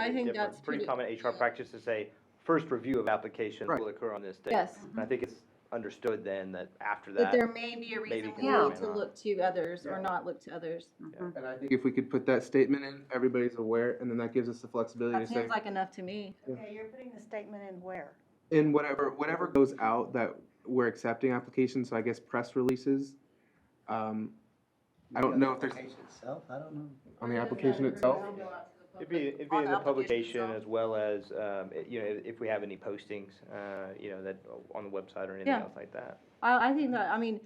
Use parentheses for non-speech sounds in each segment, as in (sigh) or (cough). I bit think different. that's Pretty common pretty- HR practice to say, first review of applications Right. will occur on this day. Yes. And I think it's understood then that after But that, there may be a maybe reason we can need remain to on. look to others or Yeah. not look to others. And I think if we could put that statement in, everybody's aware, and then that gives us the flexibility That to say, seems like enough to me. Okay, you're putting the statement in where? in whatever, whatever goes out that we're accepting applications, so I guess press releases, um, I don't know if there's- Application Itself, I don't know. on the application itself. it'd be, it'd be On in the application publication itself. as well as, um, it- you know, if we have any postings, uh, you know, that, on the website or anything Yeah. else like that. I, I think that, I mean,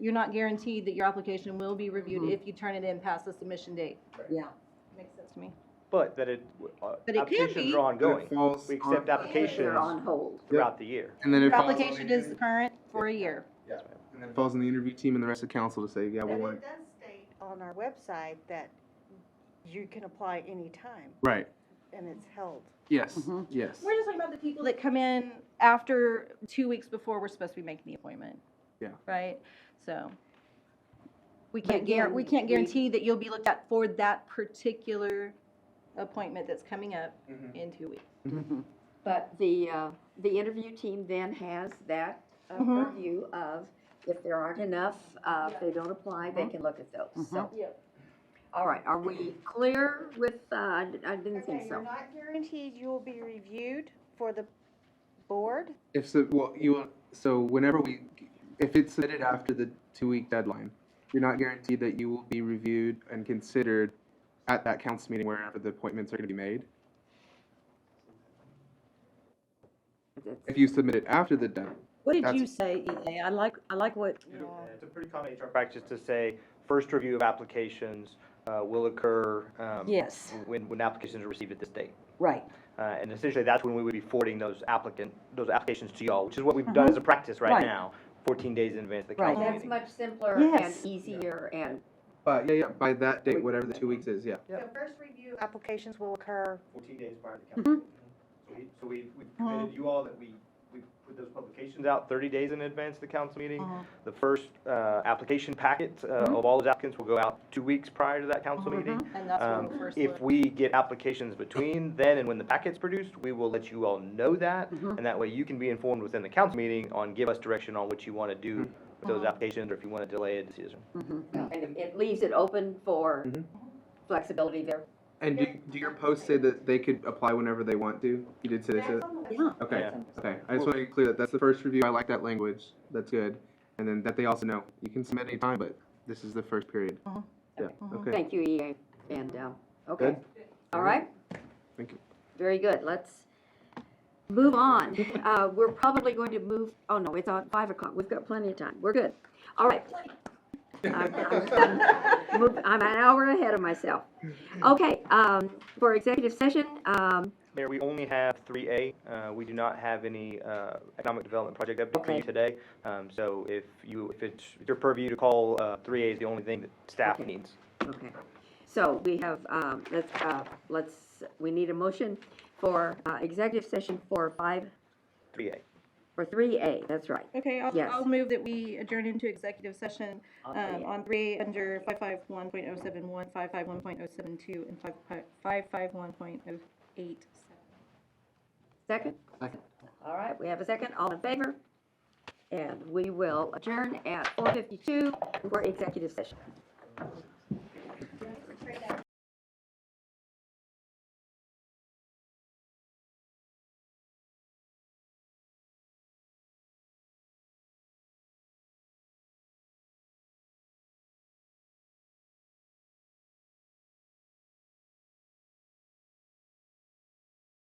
you're not guaranteed that your application will be reviewed if you turn it in past the submission date. Yeah. Makes sense to me. But that it, uh, But it can applications be. are ongoing. It falls We on- accept applications hold. throughout the year. And then it Your falls on the application is current for a year. And then it falls on the interview team and the rest of council to say, yeah, But we it want, does state on our website that you can apply anytime, right, and it's held. yes, Mm-hmm. yes, We're just talking about the people that come in after, two weeks before we're supposed to be making the appointment. Yeah. Right? So. We can't guar, we can't guarantee that you'll be looked at for that particular appointment that's coming up Mhm. in two weeks. But the, uh, the interview team then has that uh, Mhm. purview of, if there aren't enough, uh, if they don't apply, they can look at those, so. Yep. All right, are we clear with, uh, I d- I didn't Okay, think you're so. not guaranteed you will be reviewed for the board. if so, well, you, want- so whenever we, if it's submitted after the two-week deadline, you're not guaranteed that you will be reviewed and considered at that council meeting wherever the appointments are gonna be made. If you submit it after the deadline, What did That's- you say, EA? I like, I like what, It's a pretty common HR practice to say, first review of applications uh, will occur um, yes, when, when applications are received at this date. right. Uh, And essentially, that's when we would be forwarding those applicant, those applications to y'all, which is what we've done as a practice right Mm-hmm. Right. now, 14 days in advance of the Right. council That's meeting. much simpler and Yes. easier and, but yeah, yeah, by that date, whatever the two weeks is, yeah. The first review applications will occur 14 days prior to council meeting. Mm-hmm. So we- So we, we committed you all that we, we put those publications out 30 days in advance of the council meeting. Mm-hmm. The first uh, application packet uh, of all those applicants will go out two weeks prior to that council Mm-hmm. meeting. And that's when Um, we first look. If we get applications between then and when the packet's produced, we will let you all know that. And that way you can be informed within the council meeting on, give us direction on what you want to do with those applications or if you want to delay a decision. and it- it leaves it open for Mhm. flexibility there. And do, do your posts say that they could apply whenever they want to? You did say they That's said, on the Yeah. okay, Yeah. okay. I just want to be clear that that's the first review. I like that language. That's good. And then that they also know, you can submit anytime, but this is the first period. Mhm. Yeah, okay, Thank you, EA, and, uh, okay, all Mhm. right? thank you. Very good, let's move (laughs) on. Uh, we're probably going to move, oh no, it's on five o'clock, we've got plenty of time, we're good. All right. I'm- I'm move- I'm an hour ahead of myself. Okay, um, for executive session, um, Mayor, we only have three A. Uh, we do not have any, uh, economic development project update for you Okay. today. Um, so if you, if it's your purview to call, uh, three A is the only thing that staff Okay. needs. okay. So we have, um, let's, uh, let's, we need a motion for, uh, executive session for five, Three A. for three A, that's right. (laughs) Okay, I'll, Yes. I'll move that we adjourn into executive session, Uh, um, on three, under five five one point oh seven one, five five one point oh seven two, and five five, five five one point oh eight seven. Second? Second. All right, we have a second, all in favor? And we will adjourn at four fifty-two for executive session.